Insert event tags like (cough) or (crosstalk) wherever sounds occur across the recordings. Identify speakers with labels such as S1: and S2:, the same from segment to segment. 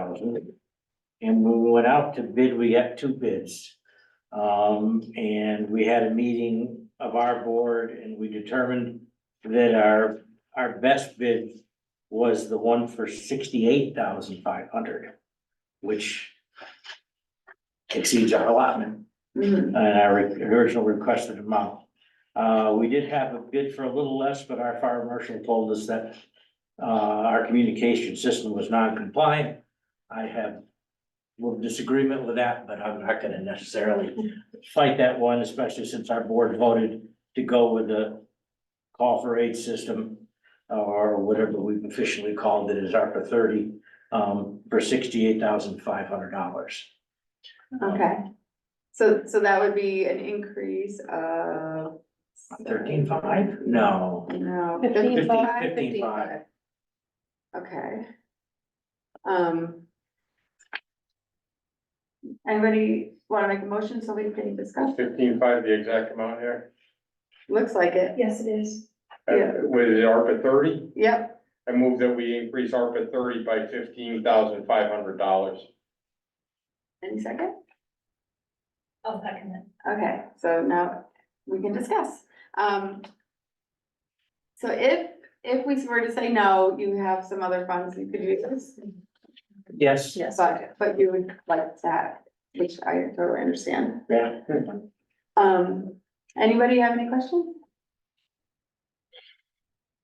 S1: thousand. And when we went out to bid, we got two bids. Um, and we had a meeting of our board and we determined that our, our best bid was the one for sixty-eight thousand five hundred, which exceeds our allotment
S2: Mhm.
S1: and our original requested amount. Uh, we did have a bid for a little less, but our fire marshal told us that uh, our communication system was non-compliant. I have a little disagreement with that, but I'm not gonna necessarily fight that one, especially since our board voted to go with the call for aid system or whatever we've officially called it as ARPA thirty um, for sixty-eight thousand five hundred dollars.
S2: Okay, so, so that would be an increase of.
S1: Thirteen five? No.
S2: No.
S3: Fifteen
S1: five.
S2: 15.5?
S1: Fifteen five.
S2: Okay. Um. Anybody wanna make a motion so we can discuss?
S4: Fifteen five, the exact amount here,
S2: Looks like it,
S3: Yes, it is.
S2: Yeah.
S4: and with the ARPA thirty,
S2: yep,
S4: I move that we increase ARPA thirty by fifteen thousand five hundred dollars.
S2: any second?
S5: Oh,
S3: I'll second that.
S2: Okay, so now we can discuss. Um. So if, if we were to say no, you have some other funds you could use,
S1: Yes.
S3: Yes.
S2: but, but you would like that, which I totally understand.
S1: Yeah.
S2: Um, anybody have any questions?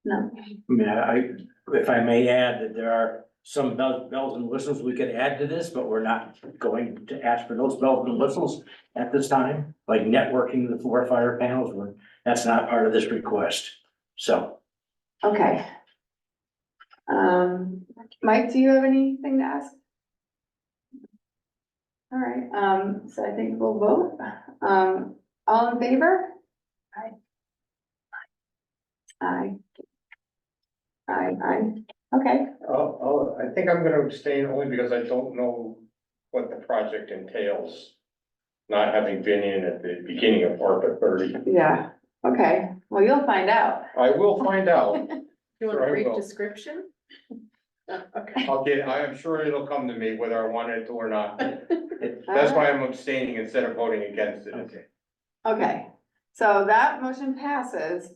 S2: No,
S1: I mean, I, if I may add that there are some bell- bells and whistles we could add to this, but we're not going to ask for those bells and whistles at this time, like networking the four fire panels, we're- that's not part of this request. So,
S2: okay. Um, Mike, do you have anything to ask? All right, um, so I think we'll vote, um, all in favor? Aye. Aye. Aye, aye, okay,
S4: Oh, I think I'm gonna abstain only because I don't know what the project entails. Not having been in at the beginning of ARPA thirty,
S2: yeah, okay, well, you'll find out.
S4: I will find
S6: (laughs)
S4: out,
S6: You want
S4: Sure, I
S6: a brief
S4: will. (laughs)
S6: description? Oh, Okay.
S4: I'll get, I am sure it'll come to me whether I want it to or
S6: (laughs)
S4: not. That's why I'm abstaining instead of voting against it.
S1: okay.
S2: Okay, so that motion passes.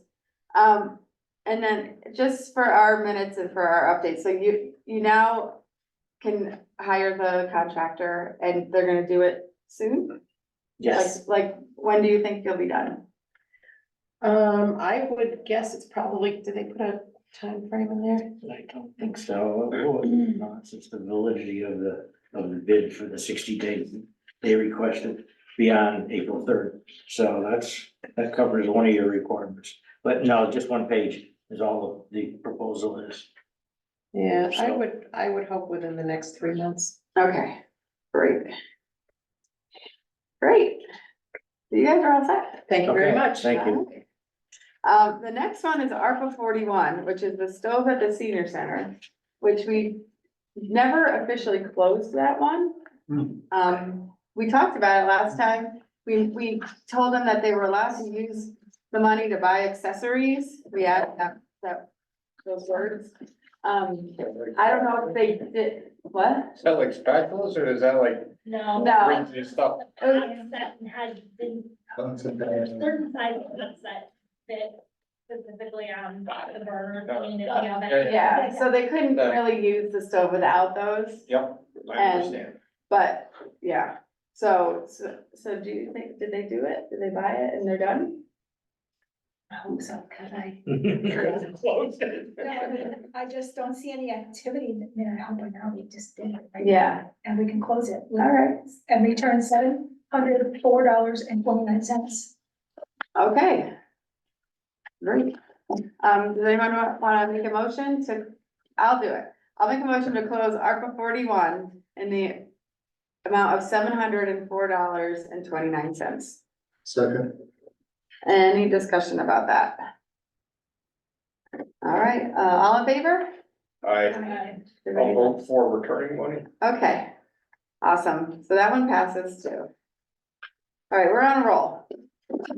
S2: Um, and then just for our minutes and for our updates, so you, you now can hire the contractor and they're gonna do it soon?
S1: Yes,
S2: Like, like, when do you think you'll be done?
S6: Um, I would guess it's probably, did they put a time frame in there?
S1: I don't think so. Oh, it's not, Since the validity of the, of the bid for the sixty days they requested beyond April third. So that's, that covers one of your requirements. But no, just one page is all of the proposal is.
S6: Yeah, I
S1: So-
S6: would, I would hope within the next three months.
S2: Okay, great. Great. You guys are all set?
S6: Thank you very
S1: Okay,
S6: much.
S1: Thank you.
S2: Um, the next one is ARPA forty-one, which is the stove at the senior center, which we never officially closed that one.
S1: Hmm. (laughs)
S2: Um, we talked about it last time. We, we told them that they were allowed to use the money to buy accessories. We added that, that, those words. Um, I don't know if they did, what?
S4: Is that like spatulas or is that like
S5: No.
S3: Uh,
S2: No,
S4: printed stuff?
S5: I've sat and had been certain sizes that fit specifically on the burner, I mean, if you have
S4: Yeah,
S5: it.
S2: yeah, so they couldn't really use the stove without those.
S4: Yep, I
S2: And-
S4: understand.
S2: But, yeah, so, so, so do you think, did they do it? Did they buy it and they're done?
S3: I
S5: Oh,
S3: hope so, could I?
S4: Closed.
S3: I just don't see any activity that, you know, helping out, Oh, we just did it. right?
S2: Yeah,
S3: And we can close it.
S2: all right,
S3: And return seven hundred four dollars and twenty-nine cents.
S2: okay. Great. Um, does anyone wa- wanna make a motion to, I'll do it. I'll make a motion to close ARPA forty-one in the amount of seven hundred and four dollars and twenty-nine cents.
S7: Second,
S2: Any discussion about that? All right, uh, all in favor?
S4: I, I'll vote for returning money.
S2: Okay, awesome, so that one passes too. All right, we're on a roll.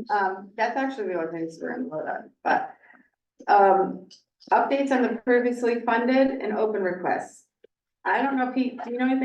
S2: Um, that's actually the only things we're gonna vote on, but. Um, updates on the previously funded and open requests. I don't know, Pete, do you know anything